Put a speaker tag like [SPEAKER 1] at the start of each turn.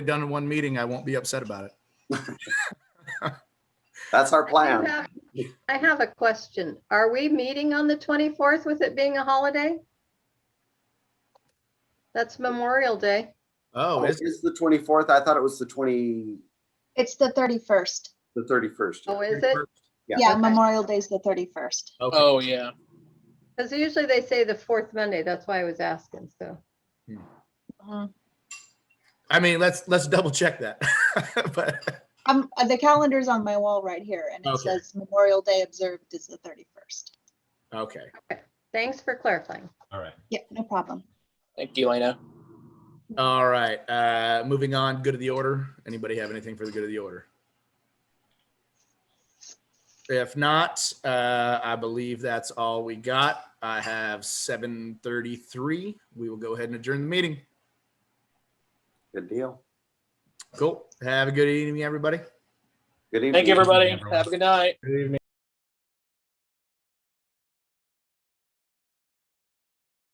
[SPEAKER 1] done in one meeting, I won't be upset about it.
[SPEAKER 2] That's our
[SPEAKER 3] I
[SPEAKER 2] plan.
[SPEAKER 3] have- I have a question. Are we meeting on the 24th with it being a holiday? That's Memorial Day.
[SPEAKER 1] Oh,
[SPEAKER 2] Oh,
[SPEAKER 1] is-
[SPEAKER 2] It's the twenty-fourth. I thought it was the twenty,
[SPEAKER 4] It's the 31st.
[SPEAKER 2] the thirty-first.
[SPEAKER 3] Oh, is it?
[SPEAKER 2] Yeah.
[SPEAKER 4] Yeah,
[SPEAKER 3] Okay.
[SPEAKER 4] Memorial Day's the 31st.
[SPEAKER 1] Okay.
[SPEAKER 5] Oh, yeah.
[SPEAKER 3] Because usually they say the fourth Monday. That's why I was asking, so.
[SPEAKER 1] I mean, let's, let's double check that. But,
[SPEAKER 4] Um, uh, the calendar's on my wall right here and it
[SPEAKER 1] Okay.
[SPEAKER 4] says Memorial Day observed is the 31st.
[SPEAKER 1] okay.
[SPEAKER 3] Thanks for clarifying.
[SPEAKER 1] All right.
[SPEAKER 4] Yeah, no problem.
[SPEAKER 5] Thank you, Elena.
[SPEAKER 1] All right. Uh, moving on, good of the order. Anybody have anything for the good of the order? If not, uh, I believe that's all we got. I have seven thirty-three. We will go ahead and adjourn the meeting.
[SPEAKER 2] Good deal.
[SPEAKER 1] Cool. Have a good evening, everybody.
[SPEAKER 2] Good evening.
[SPEAKER 5] Thank you, everybody.
[SPEAKER 6] everyone.
[SPEAKER 5] Have a good night.
[SPEAKER 1] Good evening.